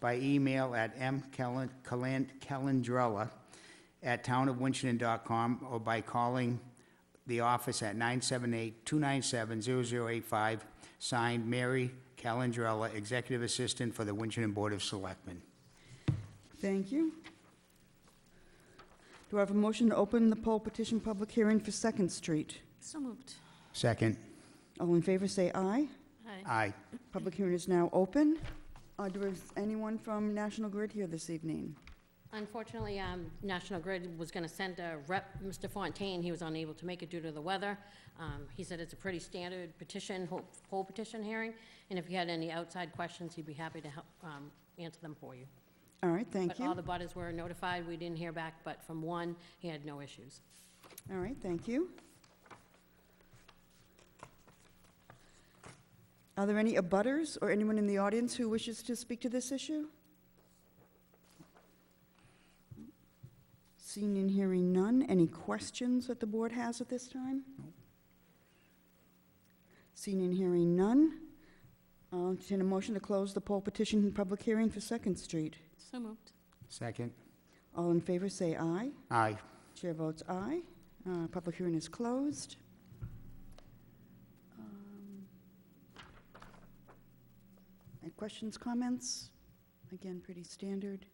by email at mcalendrella@townofwinchton.com or by calling the office at 978-297-0085, signed Mary Calendrella, Executive Assistant for the Winchton Board of Selectmen. Thank you. Do I have a motion to open the poll petition public hearing for Second Street? So moved. Second. All in favor, say aye. Uh, Aye. Aye. Public hearing is now open. Uh, Do is anyone from National Grid here this evening? Unfortunately, um, National Grid was going to send a rep, Mr. Fontaine, he was unable to make it due to the weather. Um, He said it's a pretty standard petition, whole- whole petition hearing, and if you had any outside questions, he'd be happy to help um, answer them for you. All right, thank But all you. the butters were notified, we didn't hear back, but from one, he had no issues. All right, thank you. Are there any abutters or anyone in the audience who wishes to speak to this issue? Seeing and hearing none, any questions that the board has at this time? Seeing and hearing none, I'll entertain a motion to close the poll petition and public hearing for Second Street. So moved. Second. All in favor, say aye. Aye. Chair votes aye. Uh, Public hearing is closed. Um, Any questions, comments? Again, pretty standard.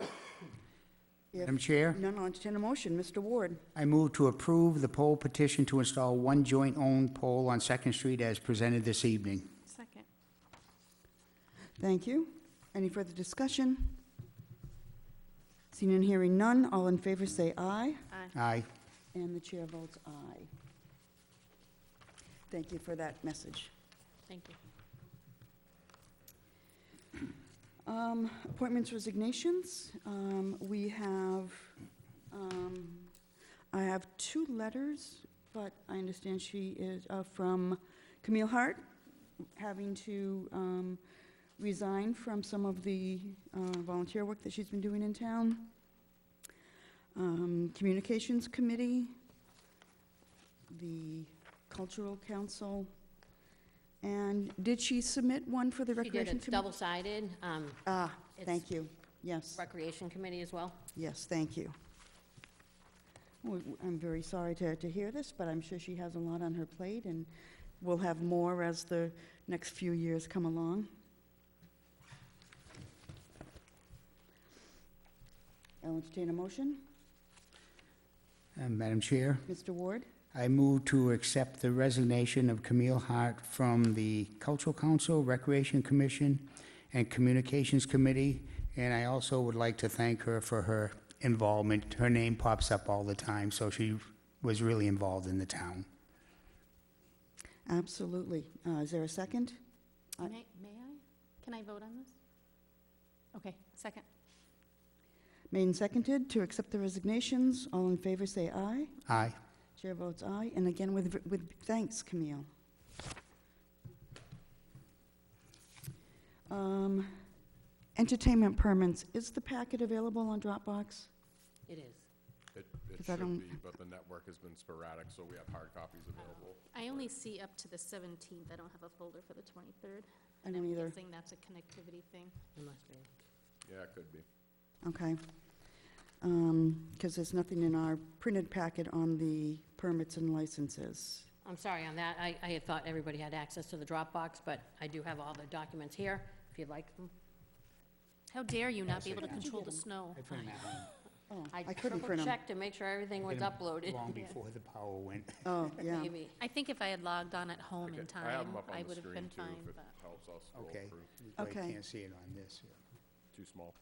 If Madam Chair? none, I'll entertain a motion. Mr. Ward, I move to approve the poll petition to install one joint-owned pole on Second Street as presented this evening. Second. thank you. Any further discussion? Seeing and hearing none, all in favor say aye. Aye. Aye. And the chair votes aye. Thank you for that message. Thank you. Um, Appointments, resignations. Um, We have, um, I have two letters, but I understand she is uh, from Camille Hart, having to um, resign from some of the uh, volunteer work that she's been doing in town. Um, Communications Committee, the Cultural Council, and did she submit one for the He did, Recreation it's Committee? double-sided, um, Ah, It's- thank you. Yes, Recreation Committee as well. yes, thank you. W- w- I'm very sorry to, to hear this, but I'm sure she has a lot on her plate, and we'll have more as the next few years come along. I'll entertain a motion. Uh, Madam Chair, Mr. Ward, I move to accept the resignation of Camille Hart from the Cultural Council, Recreation Commission, and Communications Committee, and I also would like to thank her for her involvement. Her name pops up all the time, so she was really involved in the town. absolutely. Uh, Is there a second? Aye. May may I? Can I vote on this? Okay, second. Made and seconded to accept the resignations. All in favor, say aye. Aye. Chair votes aye, and again with, with thanks, Camille. Um, Entertainment permits, is the packet available on Dropbox? It is. It, it 'Cause I don't- should be, but the network has been sporadic, so we have hard copies available. I only see up to the 17th. I don't have a folder for the 23rd. I don't am either. guessing that's a connectivity thing. It must be. Yeah, it could be. Okay. Because there's nothing in our printed packet on the permits and licenses. I'm sorry on that. I, I had thought everybody had access to the Dropbox, but I do have all the documents here, if you'd like them. How dare you not be able to control the snow? Oh, I I couldn't print triple them. checked to make sure everything was uploaded. Long before the power went. Oh, yeah. Maybe. I think if I had logged on at home in Okay, I have time, 'em up on I the would have been screen, too, fine, if it but Helps us scroll Okay. through. I Okay. can't see it on this. Too small.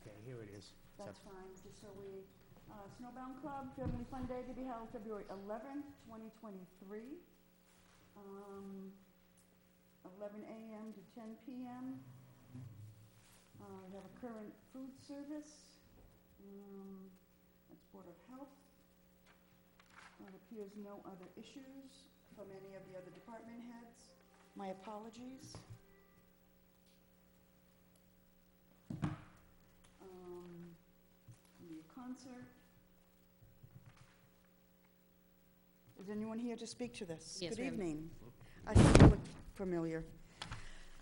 Okay, here it is. It's up- That's fine, just so we, uh, Snowbound Club Family Fun Day to be held February eleventh, twenty twenty-three. Um, eleven AM to ten PM. Uh, we have a current food service, um, that's Board of Health. It appears no other issues from any of the other department heads. My apologies. um, maybe a concert. Is anyone here to speak to this? Yes, Good we have- evening. I thought you looked familiar.